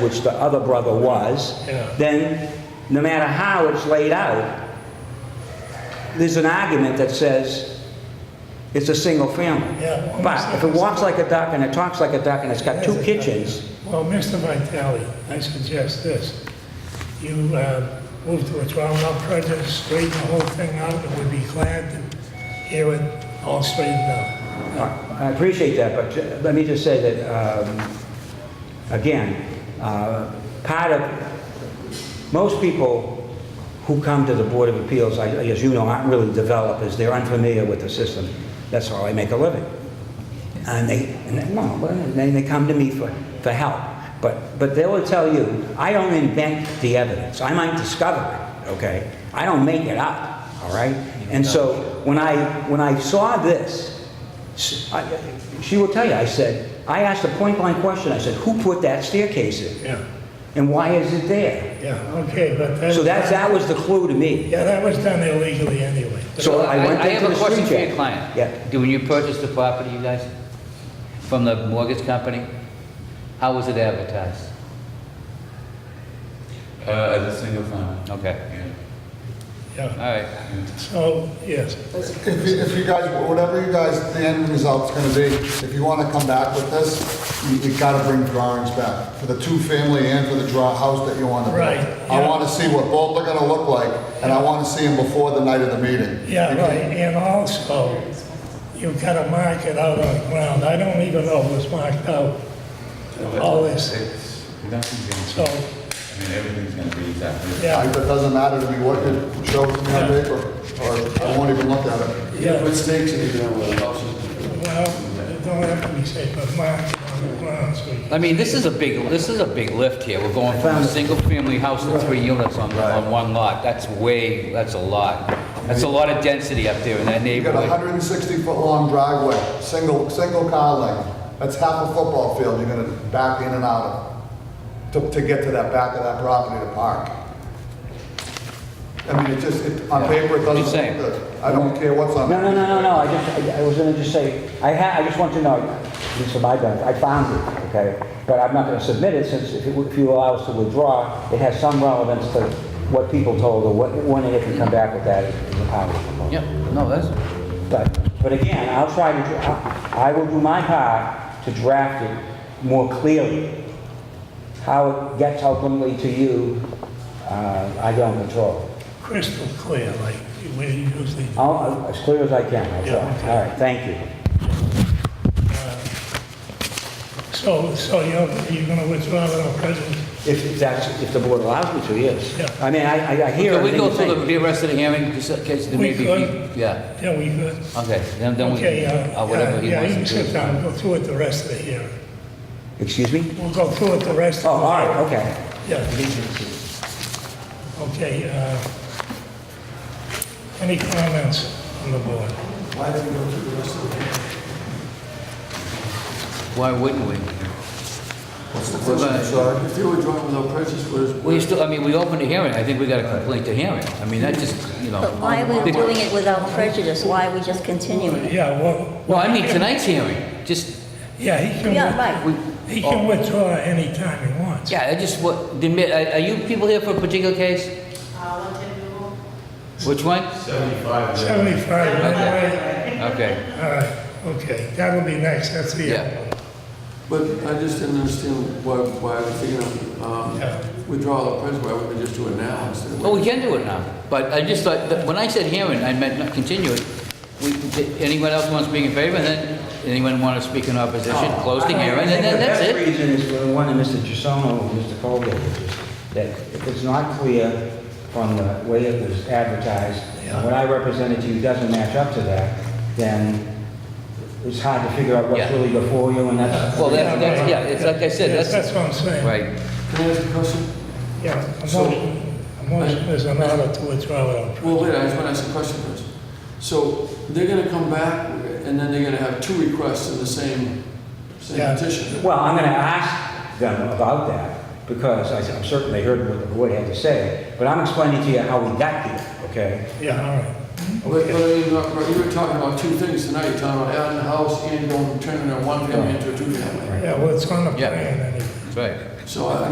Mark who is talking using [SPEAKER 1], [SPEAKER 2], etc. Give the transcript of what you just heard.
[SPEAKER 1] which the other brother was,
[SPEAKER 2] Yeah.
[SPEAKER 1] then no matter how it's laid out, there's an argument that says it's a single family.
[SPEAKER 2] Yeah.
[SPEAKER 1] But if it walks like a duck and it talks like a duck and it's got two kitchens,
[SPEAKER 2] Well, Mr. Vitale, I suggest this. You uh, move to a trial without prejudice, straighten the whole thing out, and we'd be glad to hear it all straightened out.
[SPEAKER 1] uh, I appreciate that, but ju- let me just say that, um, again, uh, part of, most people who come to the Board of Appeals, I- as you know, aren't really developers, they're unfamiliar with the system. That's how I make a living. And they, and they- well, and then they come to me for, for help. But, but they will tell you, I don't invent the evidence, I might discover it, okay? I don't make it up, all right? And so, when I, when I saw this, s- I- she will tell you, I said, I asked a point-blank question, I said, who put that staircase in?
[SPEAKER 2] Yeah,
[SPEAKER 1] And why is it there?
[SPEAKER 2] yeah, okay, but that...
[SPEAKER 1] So that, that was the clue to me.
[SPEAKER 2] Yeah, that was done illegally anyway.
[SPEAKER 1] So I went
[SPEAKER 3] I have
[SPEAKER 1] into
[SPEAKER 3] a
[SPEAKER 1] the
[SPEAKER 3] question
[SPEAKER 1] street
[SPEAKER 3] for your
[SPEAKER 1] jack.
[SPEAKER 3] client.
[SPEAKER 1] Yeah.
[SPEAKER 3] Do, when you purchased the property, you guys, from the mortgage company, how was it advertised?
[SPEAKER 4] Uh, as a single family.
[SPEAKER 3] Okay,
[SPEAKER 4] Yeah.
[SPEAKER 3] all
[SPEAKER 2] Yeah,
[SPEAKER 3] right.
[SPEAKER 2] so, yes,
[SPEAKER 5] If you, if you guys, whatever you guys, the end result's gonna be, if you wanna come back with this, you, you gotta bring drawings back, for the two-family and for the draw house that you wanna build.
[SPEAKER 2] Right,
[SPEAKER 5] I
[SPEAKER 2] yeah.
[SPEAKER 5] wanna see what both are gonna look like, and I wanna see them before the night of the meeting.
[SPEAKER 2] yeah,
[SPEAKER 5] Because-
[SPEAKER 2] right, and also, you've got to mark it out on the ground. I don't even know if it's marked out, all this,
[SPEAKER 4] It's, nothing's
[SPEAKER 2] so,
[SPEAKER 4] gonna change. I mean, everything's gonna be exactly. the same.
[SPEAKER 2] yeah.
[SPEAKER 5] I- It doesn't matter to me what you show to me on paper, or I won't even look at it.
[SPEAKER 2] Yeah.
[SPEAKER 6] What stakes are you gonna allow?
[SPEAKER 2] Well, it don't have to be safe, but mine, on the ground, so you-
[SPEAKER 3] I mean, this is a big, this is a big lift here. We're going from a single-family house to three units on, on one lot. That's way, that's a lot. That's a lot of density up there in that
[SPEAKER 5] You got a
[SPEAKER 3] neighborhood.
[SPEAKER 5] hundred and sixty-foot-long driveway, single, single car lane, that's half a football field you're gonna back in and out of, to, to get to that back of that property to park. I mean, it just, it, on paper, it doesn't
[SPEAKER 3] Just saying.
[SPEAKER 5] look good. I don't care what's on.
[SPEAKER 1] No, no,
[SPEAKER 5] it.
[SPEAKER 1] no, no, no, I just, I- I was gonna just say, I ha, I just want to know, this is my benefit, I found it, okay? But I'm not gonna submit it since if you- if you allow us to withdraw, it has some relevance to what people told or what, when and if you come back with that is a power proposal.
[SPEAKER 3] Yeah, no, that's,
[SPEAKER 1] But, but again, I'll try to, dra- I I will do my part to draft it more clearly. How it gets ultimately to you, uh, I don't control.
[SPEAKER 2] crystal clear, like we usually do.
[SPEAKER 1] I'll, as clear as I can, I'll
[SPEAKER 2] Yeah,
[SPEAKER 1] try.
[SPEAKER 2] okay.
[SPEAKER 1] All right, thank you.
[SPEAKER 2] So, so you're, you're gonna withdraw without prejudice?
[SPEAKER 1] If if that's, if the board allows me to,
[SPEAKER 2] Yeah.
[SPEAKER 1] yes. I mean, I, I- I hear
[SPEAKER 3] can
[SPEAKER 1] everything
[SPEAKER 3] we go
[SPEAKER 1] you're
[SPEAKER 3] through the-
[SPEAKER 1] saying.
[SPEAKER 3] the rest of the hearing, just in case there may
[SPEAKER 2] We
[SPEAKER 3] be,
[SPEAKER 2] could.
[SPEAKER 3] yeah,
[SPEAKER 2] Yeah, we could.
[SPEAKER 3] okay, then, then we,
[SPEAKER 2] Okay, uh,
[SPEAKER 3] uh, whatever he
[SPEAKER 2] yeah,
[SPEAKER 3] wants
[SPEAKER 2] you can
[SPEAKER 3] to
[SPEAKER 2] sit
[SPEAKER 3] do.
[SPEAKER 2] down, go through it the rest of the hearing.
[SPEAKER 1] Excuse me?
[SPEAKER 2] We'll go through it the rest
[SPEAKER 1] Oh,
[SPEAKER 2] of the...
[SPEAKER 1] all right, okay.
[SPEAKER 2] Yeah. Okay, uh, any comments on the board?
[SPEAKER 3] Why wouldn't we?
[SPEAKER 6] What's the
[SPEAKER 3] Well,
[SPEAKER 6] question,
[SPEAKER 3] uh,
[SPEAKER 6] sorry? If you were drawing without prejudice, what is? what
[SPEAKER 3] We
[SPEAKER 6] is-
[SPEAKER 3] still, I mean, we opened a hearing, I think we got a complaint to hearing. I mean, that just, you know.
[SPEAKER 7] But why are we doing it without prejudice? Why are we just continuing it?
[SPEAKER 2] Yeah, well...
[SPEAKER 3] Well, I mean, tonight's hearing, just,
[SPEAKER 2] Yeah, he can...
[SPEAKER 7] Yeah,
[SPEAKER 2] with-
[SPEAKER 7] right.
[SPEAKER 3] we,
[SPEAKER 2] He can withdraw anytime he wants.
[SPEAKER 3] yeah, I just, what, the mi- are are you people here for a particular case? Which one?
[SPEAKER 4] Seventy-five.
[SPEAKER 2] 75, anyway.
[SPEAKER 3] Okay,
[SPEAKER 2] All right, okay, that'll be next, that's the...
[SPEAKER 3] yeah.
[SPEAKER 6] But I just didn't understand why, why we're thinking of,
[SPEAKER 2] Yeah.
[SPEAKER 6] um, withdrawal of prejudice, why wouldn't we just do it now instead of?
[SPEAKER 3] Well, we can do it now, but I just thought, that when I said hearing, I meant not continue it. We, did anyone else want to speak in favor, and then, anyone want to speak in opposition,
[SPEAKER 6] Oh,
[SPEAKER 3] close the hearing, and then that's
[SPEAKER 1] I think
[SPEAKER 3] it.
[SPEAKER 1] the best reason is for the one that Mr. Gisono and Mr. Colgate, is that if it's not clear from the way it was advertised, and what I represented to you doesn't match up to that, then it's hard to figure out what's
[SPEAKER 3] Yeah.
[SPEAKER 1] really before you, and that's...
[SPEAKER 3] Well, that's, that's, yeah, it's like I said,
[SPEAKER 2] Yes,
[SPEAKER 3] that's,
[SPEAKER 2] That's what I'm saying.
[SPEAKER 3] right.
[SPEAKER 6] Can I ask a question?
[SPEAKER 2] Yeah, a
[SPEAKER 6] So-
[SPEAKER 2] motion, a motion is an order to withdraw without prejudice.
[SPEAKER 6] Well, wait, I just want to ask a question first. So they're gonna come back and then they're gonna have two requests in the same,
[SPEAKER 2] Yeah.
[SPEAKER 6] same petition?
[SPEAKER 1] Well, I'm going to ask them about that, because I- I'm certain they heard what the board had to say, but I'm explaining to you how we got here, okay?
[SPEAKER 2] Yeah, all right.
[SPEAKER 6] But, but I mean, look, but you were talking about two things tonight, you're talking about adding a house and going, turning a one family into a two family.
[SPEAKER 2] Yeah, well, it's on the
[SPEAKER 3] Yeah.
[SPEAKER 2] plan anyway.
[SPEAKER 3] That's right.
[SPEAKER 6] So I,